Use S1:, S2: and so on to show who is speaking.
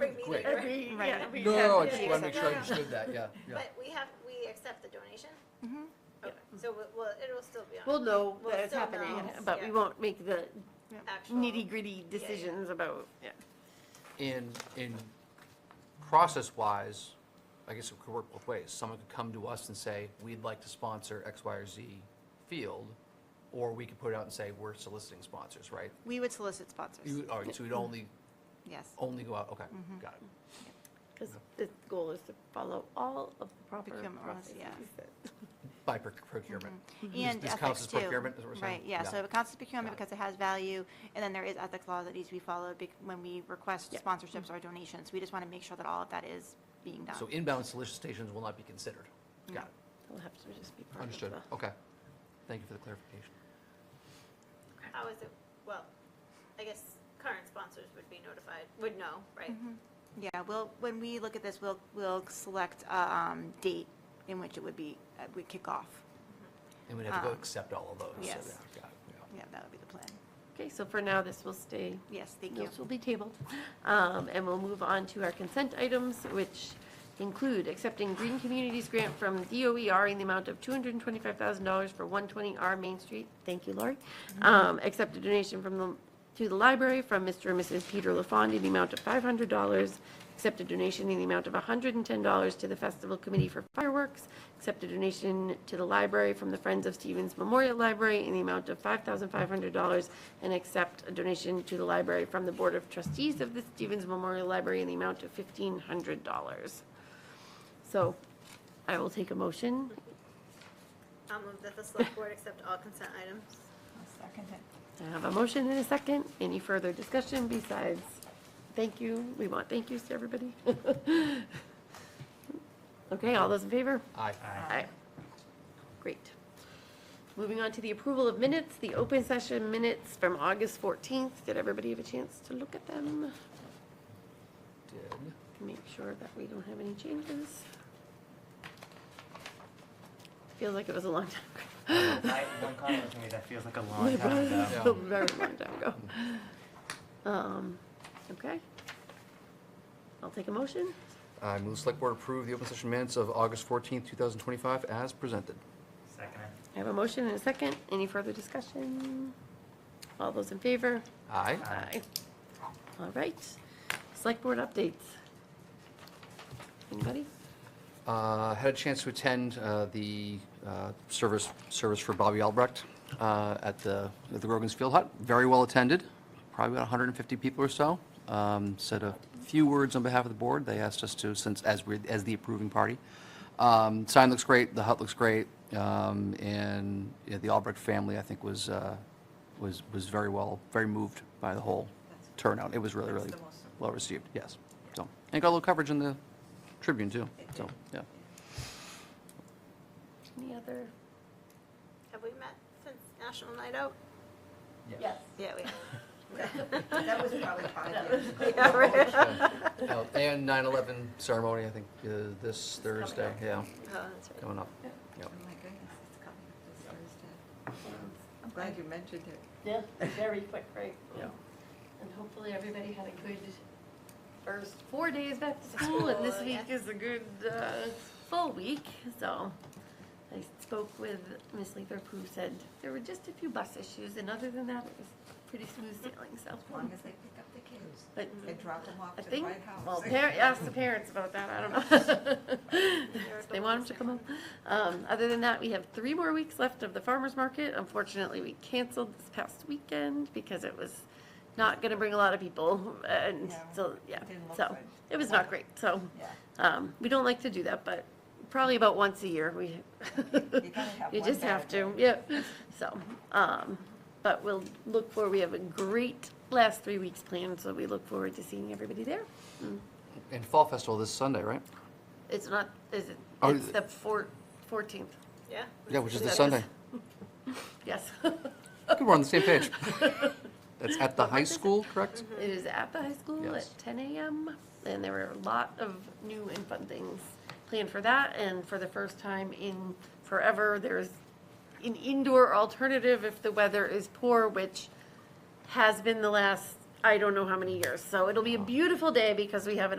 S1: Great.
S2: It'd be-
S3: Right.
S2: yeah, it'd be-
S1: No, no, no, I just
S2: yeah,
S1: want to make sure I
S2: yeah.
S1: understood that, yeah, yeah.
S4: But we have, we accept the donation?
S3: Mhm.
S4: Okay, so we- well, it'll still be on
S5: We'll know
S4: We'll
S5: that it's
S4: still
S5: happening,
S4: know,
S5: but we
S4: yeah.
S5: won't make the
S4: actual.
S2: Nitty gritty decisions about, yeah.
S1: And, and process-wise, I guess it could work both ways. Someone could come to us and say, we'd like to sponsor X, Y, or Z field, or we could put it out and say, we're soliciting sponsors, right?
S3: We would solicit sponsors,
S1: You, Oh, all right, so we'd only,
S3: yes.
S1: only go out, okay, got it.
S5: Because the goal is to follow all of the proper
S3: Procurement laws,
S5: processes.
S3: yeah.
S5: that-
S1: By proc- procurement.
S3: Mm-hmm. And
S1: This counts
S3: ethics
S1: as
S3: too.
S1: procurement, is what we're saying?
S3: Right, yeah, so it counts as procurement
S1: Got it.
S3: because it has value, and then there is ethics law that needs to be followed bec- when we request
S5: Yeah.
S3: sponsorships or donations. We just want to make sure that all of that is being done.
S1: So inbound solicitations will not be considered. Got it,
S5: It'll have to just be part of
S1: understood,
S5: the.
S1: okay. Thank you for the clarification.
S4: How is it, well, I guess current sponsors would be notified, would know, right?
S3: Yeah, we'll, when we look at this, we'll, we'll select a um, date in which it would be, uh, we kick off.
S1: And we'd have to go
S3: Um,
S1: accept all of those. so
S3: yes.
S1: yeah, got it, yeah.
S3: Yeah, that would be the plan.
S5: Okay, so for now, this will stay
S3: Yes, thank you.
S5: Those will be tabled. Um, And we'll move on to our consent items, which include accepting Green Communities Grant from DOER in the amount of $225,000 for 120R Main Street. Thank you, Lori. Um, Accept a donation from the, to the library from Mr. and Mrs. Peter LaFond in the amount of $500. Accept a donation in the amount of $110 to the Festival Committee for Fireworks. Accept a donation to the library from the Friends of Stevens Memorial Library in the amount of $5,500. And accept a donation to the library from the Board of Trustees of the Stevens Memorial Library in the amount of $1,500. So I will take a motion.
S4: I'll move that Um, the select board accept all consent items.
S5: I have a motion and a second. Any further discussion besides thank you? We want thank yous to everybody. Okay, all those in favor?
S1: Aye.
S5: Aye. Great. Moving on to the approval of minutes, the open session minutes from August 14th. Did everybody have a chance to look at them?
S1: Did.
S5: Make sure that we don't have any changes. Feels like it was a long time ago.
S6: I, one comment was made that feels like a long
S5: It
S6: time
S5: was
S6: ago.
S5: a very long time ago. Um, okay. I'll take a motion.
S1: I move the select board approve the open session minutes of August 14th, 2025 as presented.
S6: Second it.
S5: I have a motion and a second. Any further discussion? All those in favor?
S1: Aye.
S5: Aye. All right. Select board updates. Anybody?
S1: Uh, Had a chance to attend uh, the uh, service, service for Bobby Albrecht uh, at the, at the Grogan's Field Hut. Very well attended, probably about 150 people or so. Um, Said a few words on behalf of the board. They asked us to, since, as we, as the approving party. Um, Sign looks great, the hut looks great, um, and you know, the Albrecht family, I think, was, uh, was, was very well, very moved by the whole turnout. It was really, really well received, yes. So, and got a little coverage in the Tribune, too, so, yeah.
S5: Any other?
S4: Have we met since National Night Out?
S5: Yes.
S4: Yeah, we have.
S2: That was probably five years.
S4: Yeah, right.
S1: Oh, And 9/11 ceremony, I think, uh, this Thursday, yeah,
S4: Oh, that's right.
S1: coming up. Yep.
S2: Oh my goodness, it's coming up this Thursday. I'm glad you mentioned it.
S5: Yeah, very quick, right?
S1: Yeah.
S5: And hopefully everybody had a good first four days back to school, and this
S4: School,
S5: week is a good, uh, full week, so. I spoke with Ms. Lathrop, who said there were just a few bus issues, and other than that, it was pretty smooth sailing, so.
S2: As long as they pick up the kids
S5: But
S2: and drop them off
S5: I
S2: to the
S5: think,
S2: White House.
S5: well, par- ask the parents about that, I don't know. They want them to come home. Um, other than that, we have three more weeks left of the farmer's market. Unfortunately, we canceled this past weekend because it was not gonna bring a lot of people, and
S2: No,
S5: so, yeah,
S2: it didn't look
S5: so,
S2: good.
S5: it was not great, so.
S2: Yeah.
S5: Um, we don't like to do that, but probably about once a year, we.
S2: You gotta have
S5: You
S2: one
S5: just have
S2: bad
S5: to, yep, so, um, but we'll look for, we have a great last three weeks planned, so we look forward to seeing everybody there.
S1: And Fall Festival this Sunday, right?
S5: It's not, is it,
S1: Oh,
S5: it's
S1: is it-
S5: the four, fourteenth,
S4: Yeah.
S1: Yeah, which is
S5: That
S1: this
S5: is-
S1: Sunday.
S5: yes.
S1: Good, we're on the same page. That's at the high school, correct?
S5: It is at the high school at
S1: Yes.
S5: ten AM, and there were a lot of new and fun things planned for that, and for the first time in forever, there's an indoor alternative if the weather is poor, which has been the last, I don't know how many years, so it'll be a beautiful day because we have an